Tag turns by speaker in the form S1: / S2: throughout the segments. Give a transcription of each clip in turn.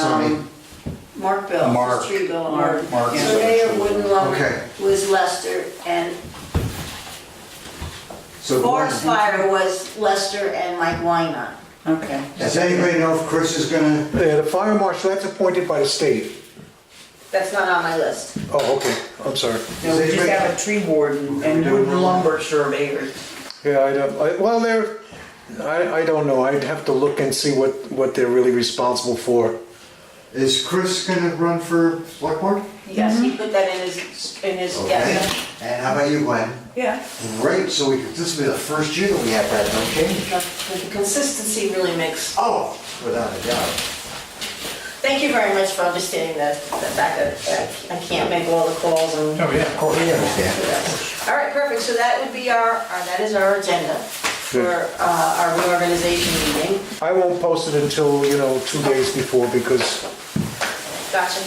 S1: somebody?
S2: um, Mark Bell,
S1: Mark.
S2: it's Tree Bill and
S3: Mark.
S2: Mark.
S1: Mark.
S2: Surveyor Wooden Lumber
S1: Okay.
S2: was Lester, and
S1: So the board-
S2: forest fire was Lester and Mike Wynot.
S3: Okay.
S1: Does anybody know if Chris is gonna,
S4: Yeah, the fire marshal, that's appointed by the state.
S2: That's not on my list.
S4: Oh, okay, I'm sorry.
S3: No, we just have a tree warden and wooden lumber surveyors.
S4: Yeah, I don't, I- well, they're, I, I don't know, I'd have to look and see what, what they're really responsible for.
S1: is Chris gonna run for select board?
S2: Yes,
S5: Mhm.
S2: he put that in his, in his,
S1: Okay.
S2: yes.
S1: And how about you, Glenn?
S3: Yeah.
S1: Great, so we, this will be the first year that we have that, no change.
S2: The the consistency really makes,
S1: Oh, without a doubt.
S2: thank you very much for understanding the, the fact that I I can't make all the calls and.
S5: Oh, yeah, of course.
S2: All right, perfect, so that would be our, our- that is our agenda for uh, our reorganization meeting.
S4: I won't post it until, you know, two days before, because
S2: Gotcha,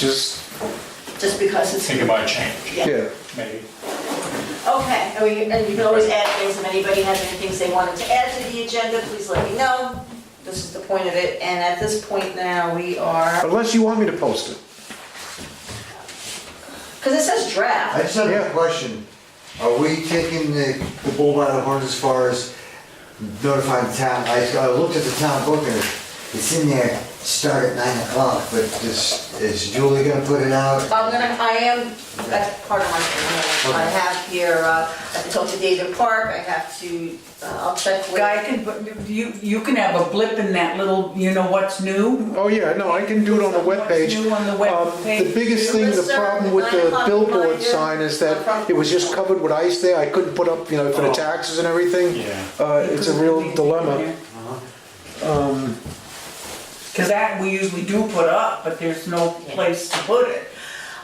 S4: just,
S2: just because it's.
S5: Think about change,
S4: yeah.
S5: maybe.
S2: Okay, and we- and you can always add things, if anybody has any things they wanted to add to the agenda, please let me know. This is the point of it, and at this point now, we are,
S4: Unless you want me to post it.
S2: because it says
S1: I
S2: draft.
S1: just have
S4: Yeah.
S1: a question. Are we taking the the bull by the horns as far as notifying the town? I I looked at the town book and it's in there, start at nine o'clock, but is is Julie gonna put it out?
S2: I'm gonna, I am, that's part of my thing, I have here, uh, I have to talk to David Park, I have to, uh, I'll check with.
S3: Guy can, put- you, you can have a blip in that little, you know, what's new?
S4: Oh, yeah, no, I can do it on the webpage.
S3: What's new on the
S4: Um,
S3: webpage?
S4: The biggest thing, the problem with the billboard sign is that it was just covered with ice there, I couldn't put up, you know, for the taxes and everything.
S5: Yeah.
S4: Uh, it's a real dilemma. Uh-huh. Um,
S3: Cause that we usually do put up, but there's no place to put it.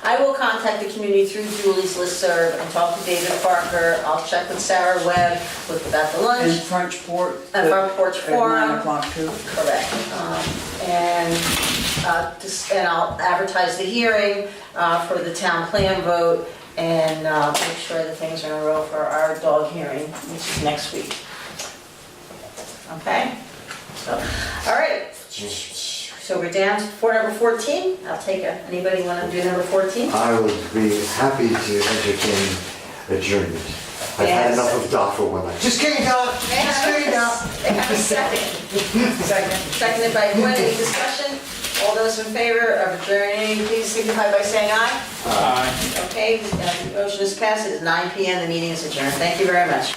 S2: I will contact the community through Julie's listserv and talk to David Parker. I'll check with Sarah Webb with about the
S3: And
S2: lunch.
S3: French Port. uh,
S2: And Front Porch
S3: At
S2: Forum.
S3: nine o'clock too.
S2: Correct. Um, And, uh, just- and I'll advertise the hearing uh, for the town plan vote and uh, make sure that things are in a row for our dog hearing, which is next week. Okay? So, all right. So we're down to for number 14. I'll take a, anybody want to do number 14?
S1: I would be happy to entertain adjournment. I've had
S2: Yes.
S1: enough of Doc for one night. Just kidding, Doc,
S2: May I
S1: just
S2: have
S1: kidding, Doc.
S2: a- may I have a second? Seconded by Gwen, any discussion? All those in favor of adjourning, please signify by saying aye.
S5: Aye.
S2: Okay, uh, motion is passed, it is 9 PM, the meeting is adjourned, thank you very much.